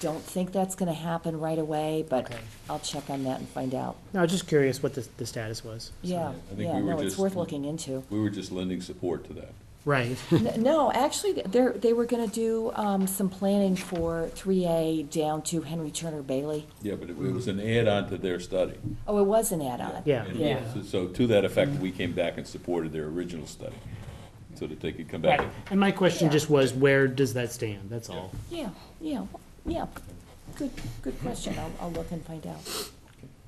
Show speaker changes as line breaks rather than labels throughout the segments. don't think that's gonna happen right away, but
Okay.
I'll check on that and find out.
No, I was just curious what the, the status was.
Yeah,
I think
yeah,
we were
no, it's
just-
worth looking into.
We were just lending support to that.
Right.
N- No, actually, they're, they were gonna do, um, some planning for three A down to Henry Turner Bailey.
Yeah, but it it was an add-on to their study.
Oh, it was an add-on.
Yeah.
And
Yeah.
so- So to that effect, we came back and supported their original study, so that they could come back.
Right. And my question
Yeah.
just was, where does that stand? That's all.
Yeah, yeah, yeah. Good, good question. I'll, I'll look and find out.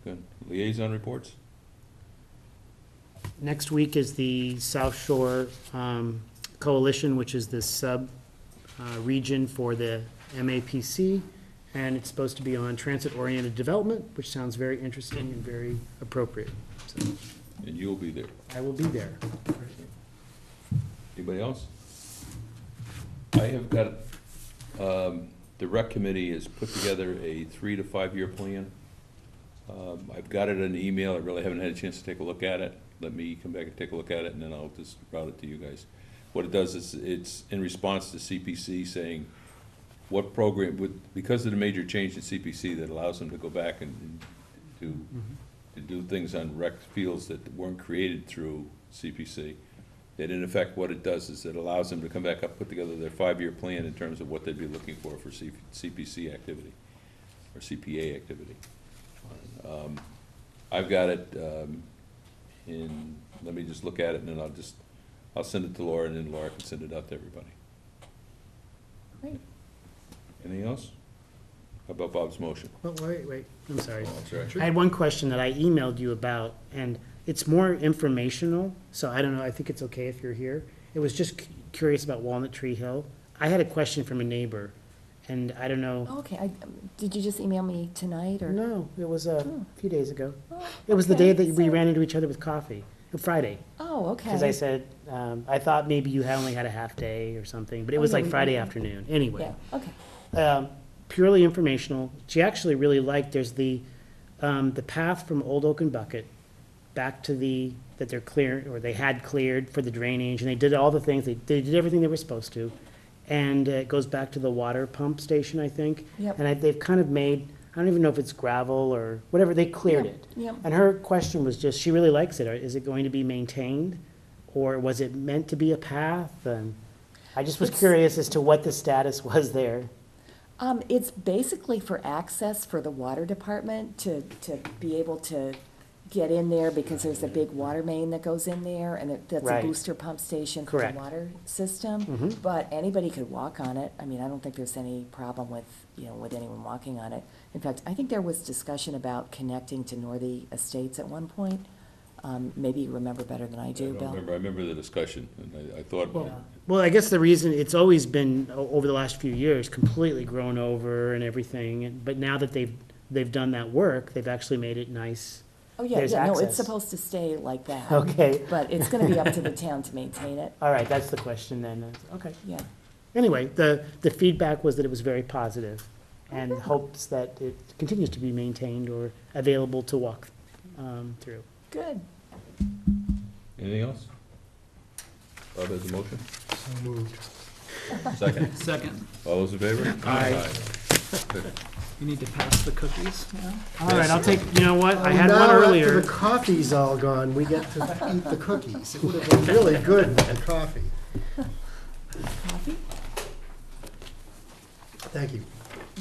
Good. Liaison reports?
Next week is the South Shore um, Coalition, which is the sub-region for the MAPC, and it's supposed to be on transit-oriented development, which sounds very interesting and very appropriate. So
And you'll be there.
I will be there.
Anybody else? I have got, um, the rec committee has put together a three to five-year plan. Um, I've got it in an email, I really haven't had a chance to take a look at it. Let me come back and take a look at it, and then I'll just route it to you guys. What it does is, it's in response to CPC saying, what program, with, because of the major change in CPC that allows them to go back and and to, to do things on rec fields that weren't created through CPC, that in effect, what it does is it allows them to come back up, put together their five-year plan in terms of what they'd be looking for for C- CPC activity, or CPA activity. Um, I've got it um, in, let me just look at it, and then I'll just, I'll send it to Laura, and then Laura can send it out to everybody.
Great.
Anything else? How about Bob's motion?
Oh, wait, wait, I'm sorry.
Oh, I'm sorry.
I had one question that I emailed you about, and it's more informational, so I don't know, I think it's okay if you're here. It was just cu- curious about Walnut Tree Hill. I had a question from a neighbor, and I don't know.
Okay, I, did you just email me tonight or?
No, it was a
Oh.
few days ago.
Oh,
It was the
okay,
day that we
so-
ran into each other with coffee, uh, Friday.
Oh, okay.
Because I said, um, I thought maybe you had only had a half day or something, but it
Oh,
was
no,
like
we-
Friday
we-
afternoon, anyway
Yeah, okay.
um, purely informational. She actually really liked, there's the, um, the path from Old Oaken Bucket back to the, that they're clear, or they had cleared for the drainage, and they did all the things, they, they did everything they were supposed to. And uh, it goes back to the water pump station, I think.
Yep.
And I, they've kind of made, I don't even know if it's gravel or whatever, they cleared
Yep,
it.
yep.
And her question was just, she really likes it, is it going to be maintained? Or was it meant to be a path? And I just was
It's-
curious as to what the status was there.
Um, it's basically for access for the water department to, to be able to get in there because there's a big water main that goes in there and it- that's a
Right.
booster pump station for the
Correct. Mm-hmm.
water system. But anybody could walk on it. I mean, I don't think there's any problem with, you know, with anyone walking on it. In fact, I think there was discussion about connecting to Northey Estates at one point. Um, maybe you remember better than I
I
do,
don't
Bill.
remember, I remember the discussion, and I, I thought,
Well, I guess the reason, it's always been, o- over the last few years, completely grown over and everything, and- but now that they've, they've done that work, they've actually made it nice.
Oh, yeah,
There's
yeah, no, it's
access.
supposed to stay like that.
Okay,
But it's gonna be up to the town to maintain it,
all right, that's the question then, okay.
yeah.
Anyway, the, the feedback was that it was very positive, and hopes that it continues to be maintained or available to walk um, through.
Good.
anything else? Bob has a motion?
So moved.
Second?
Second,
All those in favor?
Aye.
you need to pass the cookies now?
All right, I'll take, you know what, I had one earlier.
the coffee's all gone, we get to eat the cookies. It would have been really good with the coffee.
Happy?
Thank you.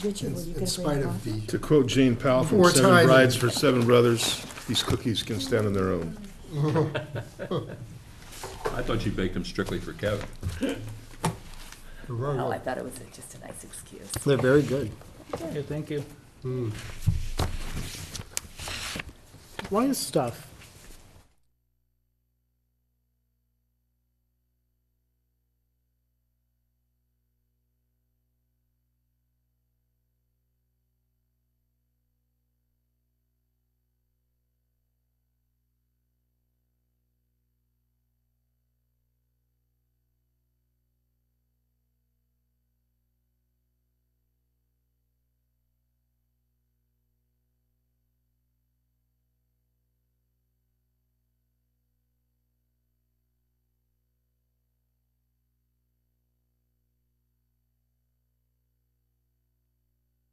Richard,
In
were you
in
going to
spite
bring
of the,
To quote Jane Powell from
Four
Seven
times.
Brides for Seven Brothers, "These cookies can stand on their own."
I thought you baked them strictly for Kevin.
the
Oh, I
road.
thought it was just a nice excuse.
They're very good.
Yeah, thank you.
Why is stuff